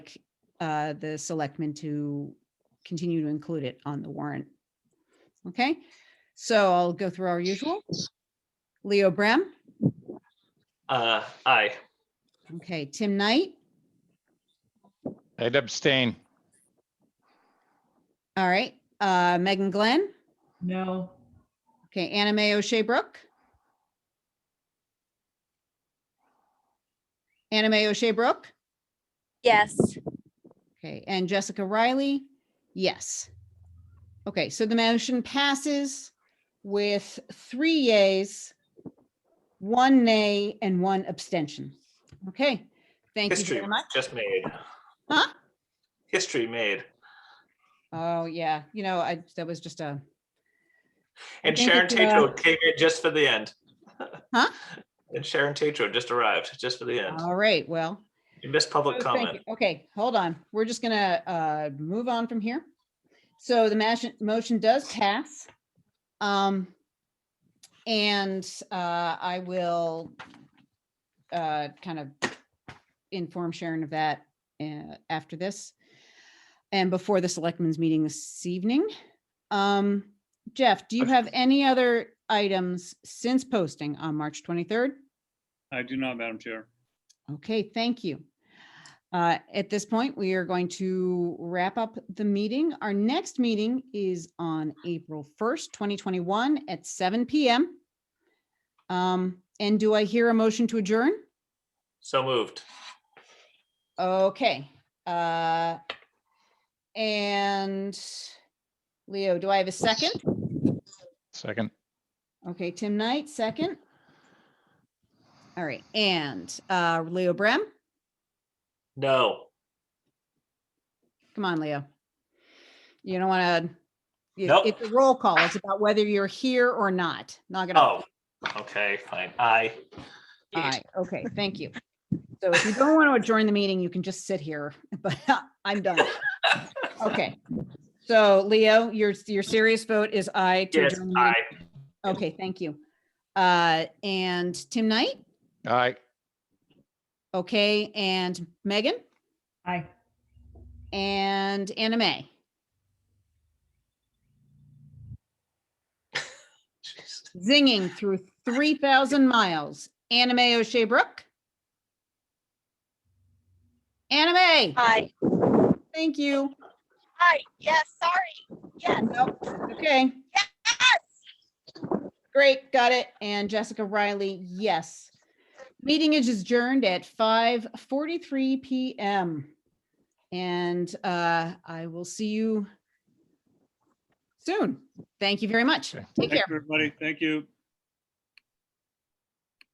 uh, the selectmen to continue to include it on the warrant. Okay, so I'll go through our usual. Leo Brem, Uh, aye. okay, Tim Knight, I'd abstain. all right, uh, Megan Glenn, No. okay, Anna Mae O'Shea Brook. Anna Mae O'Shea Brook, Yes. okay, and Jessica Riley, yes. Okay, so the motion passes with three yays, one nay, and one abstention. Okay, thank you History very much. just made. Huh? History made. Oh, yeah. You know, I, that was just a, And think Sharon it's, Tatro came in just for the end. Huh? And Sharon Tatro just arrived, just for the end. all right, well. You missed public oh, thank comment. you. Okay, hold on. We're just gonna, uh, move on from here. So the motion, motion does pass. Um, and, uh, I will, uh, kind of inform Sharon of that, uh, after this and before the selectmen's meeting this evening. Um, Jeff, do you have any other items since posting on March 23rd? I do not, Madam Chair. Okay, thank you. Uh, At this point, we are going to wrap up the meeting. Our next meeting is on April 1st, 2021 at seven PM. Um, And do I hear a motion to adjourn? So moved. Okay. uh, And Leo, do I have a second? Second. Okay, Tim Knight, second. All right, and uh, Leo Brem? No. Come on, Leo. You don't want to. Nope. It's a roll call. It's about whether you're here or not. Knock it Oh, off. okay, fine. Aye. All right. Okay, thank you. So if you don't want to adjourn the meeting, you can just sit here, but I'm done. Okay. So Leo, your, your serious vote is aye. to Yes, adjourn the meeting? aye. Okay, thank you. Uh, and Tim Knight, Aye. okay, and Megan Aye. and Anna May. Jeez. zinging through 3,000 miles. Anime O'Shea Brook. Anime, Hi. thank you. Hi. Yes. Sorry. Yes. Nope, Okay, Yes. great, got it. And Jessica Riley, yes. Meeting is adjourned at 5:43 PM. And uh, I will see you soon. Thank you very much. Okay. Take Thank you, care. everybody. Thank you.